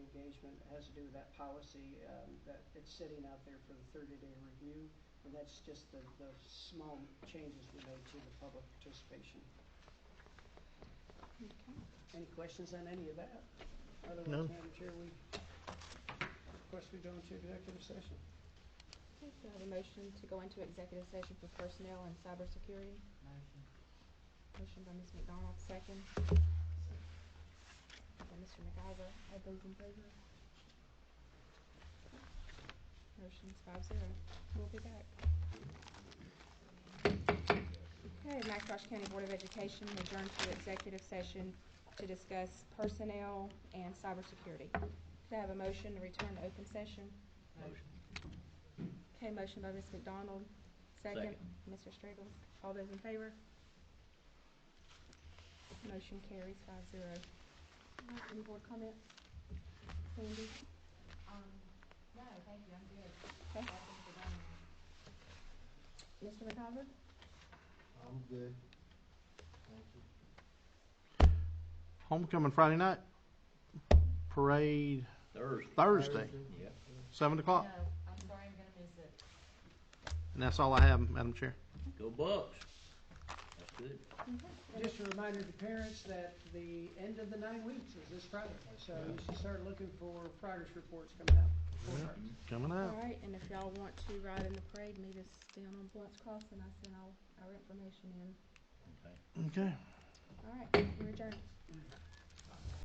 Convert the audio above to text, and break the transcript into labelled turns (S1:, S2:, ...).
S1: has to do with that policy, um, that it's sitting out there for the thirty-day review. And that's just the, the small changes we made to the public participation. Any questions on any of that? Otherwise,
S2: None.
S1: Madam Chair, we, of course, we go into executive session.
S3: Okay, do I have a motion to go into executive session for personnel and cybersecurity? Motion by Ms. McDonald, second. By Mr. McIver, all those in favor? Motion's five zero. We'll be back. Okay, Oshkosh County Board of Education adjourned to executive session to discuss personnel and cybersecurity. Do I have a motion to return to open session? Okay, motion by Ms. McDonald, second. Mr. Stragles, all those in favor? Motion carries five zero. Any board comments? Sandy?
S4: Um, no, thank you, I'm good. I
S3: Okay.
S4: think we're done now.
S3: Mr. McIver?
S5: I'm good. Thank you.
S2: Homecoming Friday night, parade
S6: Thursday.
S2: Thursday,
S6: Yep.
S2: seven o'clock.
S4: No, I'm sorry, I'm gonna miss it.
S2: And that's all I have, Madam Chair.
S6: Go Bucks. That's good.
S1: Just a reminder to parents that the end of the nine weeks is this Friday, so you should start looking for progress reports coming out. for
S2: Yeah.
S1: progress.
S2: Coming
S3: All
S2: up.
S3: right, and if y'all want to ride in the parade, meet us down on Blunt's Crossing. I sent all our information in.
S6: Okay.
S2: Okay.
S3: All right, we're adjourned.